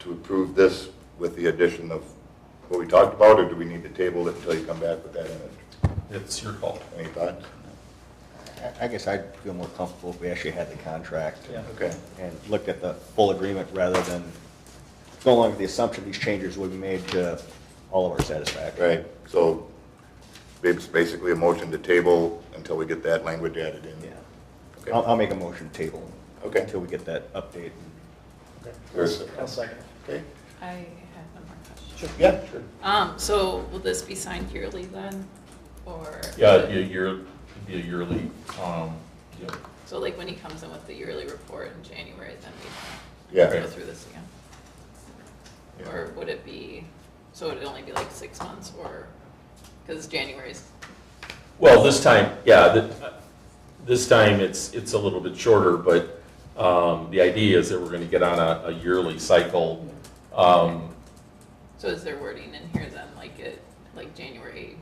to approve this with the addition of what we talked about, or do we need to table it until you come back with that in it? It's your call. Any thoughts? I- I guess I'd feel more comfortable if we actually had the contract Yeah. Okay. and looked at the full agreement rather than going along with the assumption these changes would be made to all of our satisfaction. Right, so it's basically a motion to table until we get that language added in. Yeah. Okay. I'll, I'll make a motion to table. Okay. Until we get that update. There's- I'll second. Okay, I have one more question. yeah, sure. Um, so will this be signed yearly then, or? Yeah, it'd be a year, it'd be a yearly, um, yeah. So like when he comes in with the yearly report in January, then we Yeah, go through this again? Yeah. Or would it be, so would it only be like six months or, because January's, Well, this time, yeah, th- this time it's, it's a little bit shorter, but um, the idea is that we're going to get on a a yearly cycle. Um, so is there wording in here then, like it, like January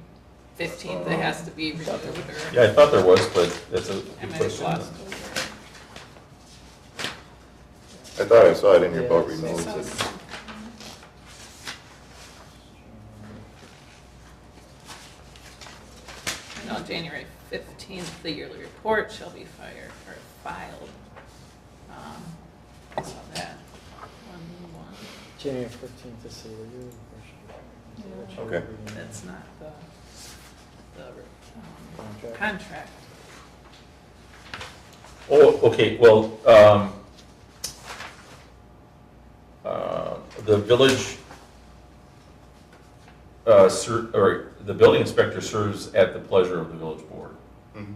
fifteenth, it has to be renewed or? Uh, Yeah, I thought there was, but that's a I good might have question. lost over. I thought I saw it in your boat I renewals. saw It- some- And on January 15th, the yearly report shall be fired or filed. Um, I saw that. One, one. January fifteenth is the review. Yeah. Okay. That's not the, the um, Contract. contract. Oh, okay, well, um, uh, the village, uh, ser- or the building inspector serves at the pleasure of the village board. Mhm.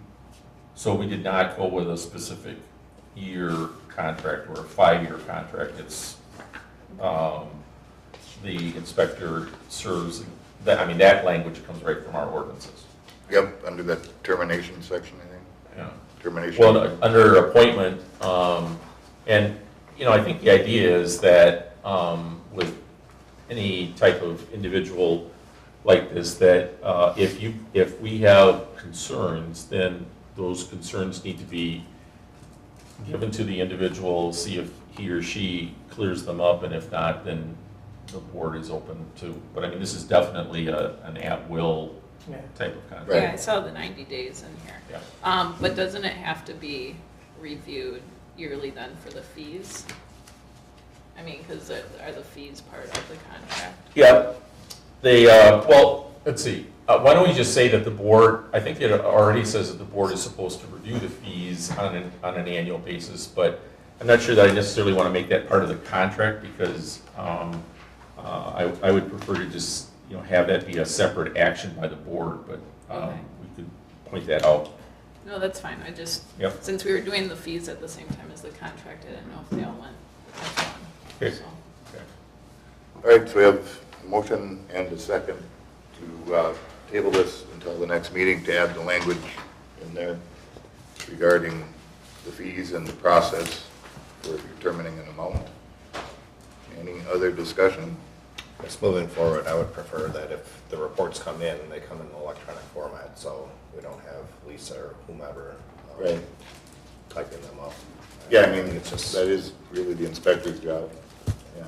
So we did not go with a specific year contract or a five-year contract. It's, um, the inspector serves, that, I mean, that language comes right from our ordinances. Yep, under that termination section, I think, Yeah. termination. Well, no, under appointment, um, and, you know, I think the idea is that, um, with any type of individual like this, that, uh, if you, if we have concerns, then those concerns need to be given to the individual, see if he or she clears them up, and if not, then the board is open to, but I mean, this is definitely a, an at-will Yeah. type of contract. Right. Yeah, I saw the 90 days in here. Yeah. Um, but doesn't it have to be reviewed yearly then for the fees? I mean, because are the fees part of the contract? Yeah, they, uh, well, let's see, Uh, why don't we just say that the board, I think it already says that the board is supposed to review the fees on an, on an annual basis, but I'm not sure that I necessarily want to make that part of the contract, because um, uh, I, I would prefer to just, you know, have that be a separate action by the board, but um, Okay. we could point that out. No, that's fine, I just, Yep. since we were doing the fees at the same time as the contract, I didn't know if they all went. as one, Okay. so. All right, so we have a motion and a second to uh, table this until the next meeting to add the language in there regarding the fees and the process for determining an amount. Any other discussion? Just moving forward, I would prefer that if the reports come in, they come in electronic format, so we don't have Lisa or whomever um, Right. typing them up. Yeah, I mean, It's just, that is really the inspector's job, yeah.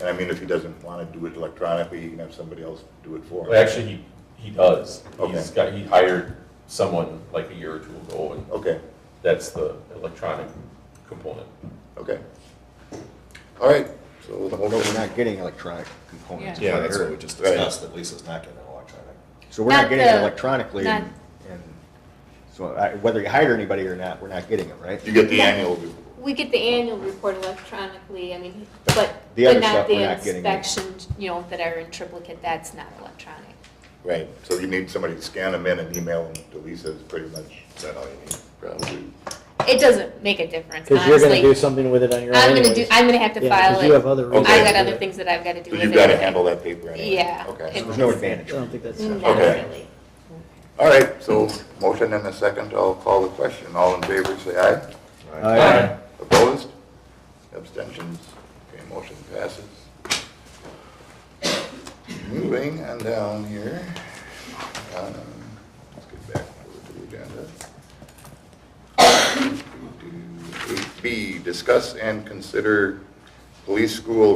And I mean, if he doesn't want to do it electronically, he can have somebody else do it for him. Well, actually, he, he does. He's Okay. got, he hired someone like a year or two ago, and Okay, that's the electronic component. okay. All right, so the But no, we're motion, not getting electronic components. Yeah. yeah, that's what we just Right. discussed, that Lisa's not getting electronic. So we're not Not getting it the- electronically and, and so I- whether you hire anybody or not, we're not getting it, right? you get the annual We get the annual report electronically, I mean, but, The other but stuff not we're the not getting. inspections, you know, that are in triplicate, that's not electronic. Right, so you need somebody to scan them in and email them to Lisa is pretty much Is that all you need? probably. It doesn't make a difference, Because you're gonna do honestly. something with it on your own I'm gonna do, anyways. I'm gonna have to Yeah, 'cause file you have it, other. Okay. I reasons. got other things that I've gotta do So with it. you've got to handle that paper anyway? Yeah. Okay. It- There's no I advantage. don't think that's. Not Okay. really. All right, so motion and a second, I'll call the question. All in favor, say aye. Right. Opposed? Abstentions? Okay, motion passes. Moving on down here. um, Let's get back over to the agenda. 8B, discuss and consider police school